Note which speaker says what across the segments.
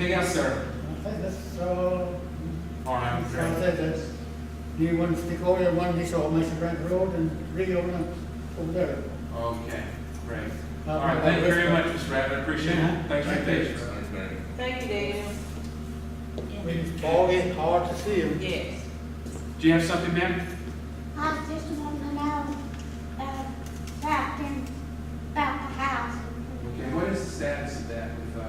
Speaker 1: Yes, sir.
Speaker 2: Okay, that's, so,
Speaker 1: All right,
Speaker 2: so
Speaker 1: great.
Speaker 2: that, that's, do you want to stick over there, one piece of Mission Branch Road and reopen over there?
Speaker 1: Okay, great.
Speaker 2: Uh,
Speaker 1: All right, thank you very
Speaker 2: uh,
Speaker 1: much, Mr. Rabbit, I appreciate
Speaker 2: Yeah.
Speaker 1: it. Thanks for your
Speaker 2: Thank you.
Speaker 1: patience.
Speaker 3: Thank you, Daniel.
Speaker 2: It's foggy, hard to see 'em.
Speaker 3: Yes.
Speaker 1: Do you have something, ma'am?
Speaker 4: I just want to know, uh, about them, about the house.
Speaker 1: Okay, what is the status of that with, uh,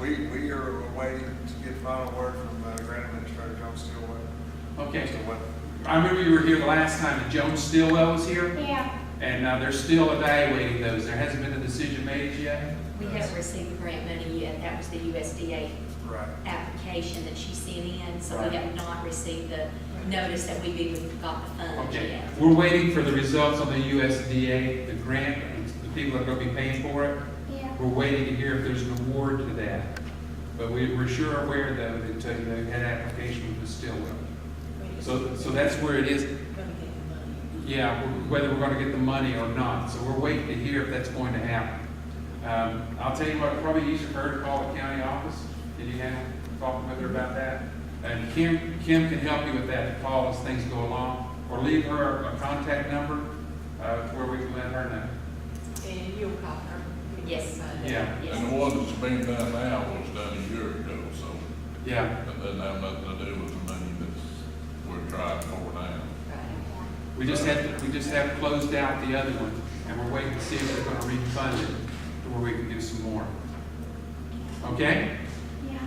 Speaker 5: We, we are waiting to get final word from uh, Grant Administrator John Stillwell.
Speaker 1: okay,
Speaker 5: Stillwell.
Speaker 1: I remember you were here the last time, and Joan Stillwell was here,
Speaker 4: Yeah,
Speaker 1: and, uh, they're still evaluating those. There hasn't been a decision made yet.
Speaker 6: We haven't received grant money yet, that was the USDA
Speaker 5: Right.
Speaker 6: application that she sent in, so
Speaker 1: Right.
Speaker 6: we have not received the notice that we've even got the funds
Speaker 1: Okay,
Speaker 6: yet.
Speaker 1: we're waiting for the results on the USDA, the grant, and the people that are gonna be paying for it.
Speaker 4: yeah.
Speaker 1: We're waiting to hear if there's an award to that. But we, we're sure aware though that uh, they had application with Stillwell. So, so that's where it is. Yeah, w- whether we're gonna get the money or not, so we're waiting to hear if that's going to happen. Um, I'll tell you what, probably easier for her to call the county office, did you have, talk with her about that? And Kim, Kim can help you with that, to call as things go along, or leave her a contact number, uh, where we can let her know.
Speaker 3: And you'll call her?
Speaker 6: Yes.
Speaker 1: Yeah,
Speaker 7: And the
Speaker 6: Yes,
Speaker 7: one that's being done now was done a year ago, so
Speaker 1: yeah,
Speaker 7: that doesn't have nothing to do with the money that's, we're trying for now.
Speaker 6: right.
Speaker 1: we just have, we just have closed out the other one, and we're waiting to see if they're gonna refund it, to where we can do some more. Okay?
Speaker 4: Yeah,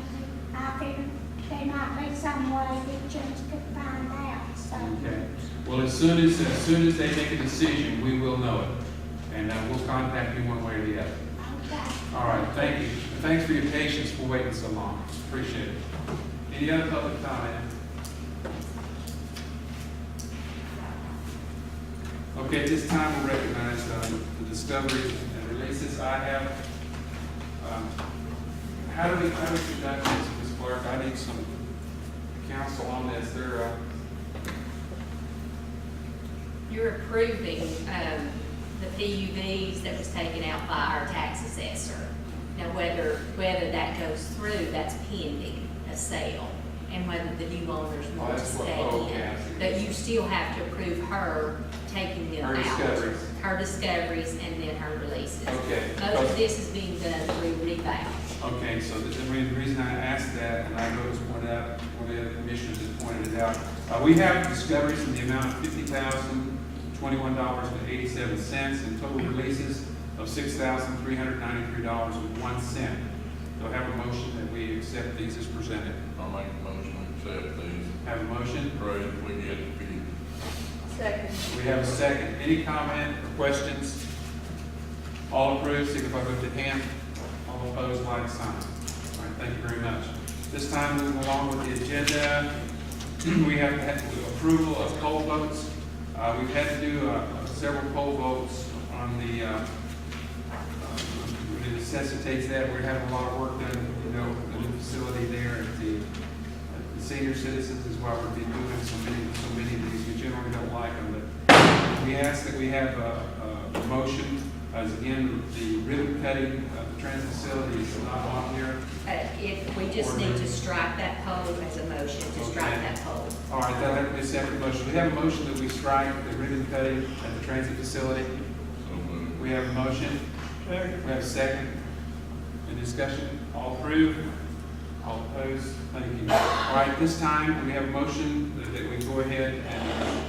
Speaker 4: I figured there might be some way that just could find out, so.
Speaker 1: Okay, well, as soon as, as soon as they make a decision, we will know it, and uh, we'll contact you one way or the other.
Speaker 4: Okay.
Speaker 1: All right, thank you, And thanks for your patience for waiting so long, appreciate it. Any other public comment? Okay, at this time, we'll recognize um, the discoveries and releases I have. um, How do we, how do we conduct this, Ms. Clark? I need some counsel on this, there, uh,
Speaker 6: You're approving, um, the PUVs that was taken out by our tax assessor. Now, whether, whether that goes through, that's pending a sale, and whether the new owners
Speaker 1: Oh,
Speaker 6: want to
Speaker 1: that's what-
Speaker 6: stay
Speaker 1: oh, okay, I see.
Speaker 6: in. But you still have to approve her taking them
Speaker 1: Her
Speaker 6: out.
Speaker 1: discoveries.
Speaker 6: Her discoveries and then her releases.
Speaker 1: Okay.
Speaker 6: Most of this is being done through rebound.
Speaker 1: Okay, so the, the re- reason I asked that, and I noticed pointed out, one of the other commissioners has pointed it out, uh, we have discoveries in the amount of fifty thousand, twenty-one dollars and eighty-seven cents, and total releases of six thousand, three hundred ninety-three dollars and one cent. Do I have a motion that we accept these as presented?
Speaker 7: I make a motion to accept these,
Speaker 1: Have a motion?
Speaker 7: pray that we get the fee.
Speaker 3: Second.
Speaker 1: We have a second. Any comment or questions? All approved, signify by the hand. All opposed, like sign. All right, thank you very much. This time, moving along with the agenda, we have to have approval of poll votes. Uh, we've had to do, uh, several poll votes on the, uh, uh, it necessitates that. We're having a lot of work done, you know, in the facility there at the, the senior citizens is why we're doing so many, so many of these, we generally don't like them, but we ask that we have a, a motion, as again, the ribbon cutting of the transit facility is not on here.
Speaker 6: Uh, if, we just need to strike that poll as a motion, to strike
Speaker 1: Okay.
Speaker 6: that poll.
Speaker 1: All right, that'll have to be a separate motion. We have a motion that we strike the ribbon cutting at the transit facility.
Speaker 7: So moved.
Speaker 1: We have a motion. We have a second. Any discussion? All approved? All opposed? Thank you. All right, this time, we have a motion that- that we go ahead and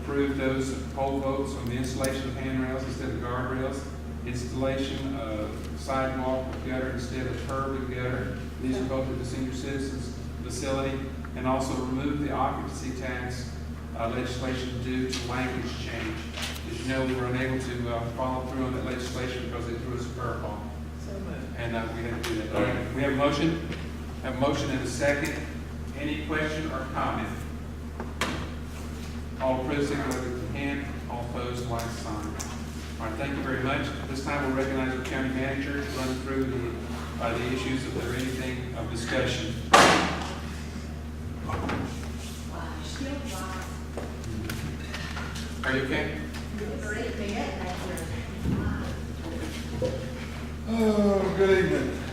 Speaker 1: approve those poll votes on the installation of handrails instead of guardrails, installation of sidewalk with gutter instead of curb and gutter. These are both at the senior citizens facility, and also remove the occupancy tax uh, legislation due to language change. As you know, we were unable to uh, follow through on that legislation because they threw us a curveball. And uh, we had to do that. All right, we have a motion, have a motion and a second. Any question or comment? All approved, signify with the hand. All opposed, like sign. All right, thank you very much. At This time, we'll recognize our county manager, to run through the, uh, the issues if there are anything of discussion. Are you okay?
Speaker 5: Oh, good evening.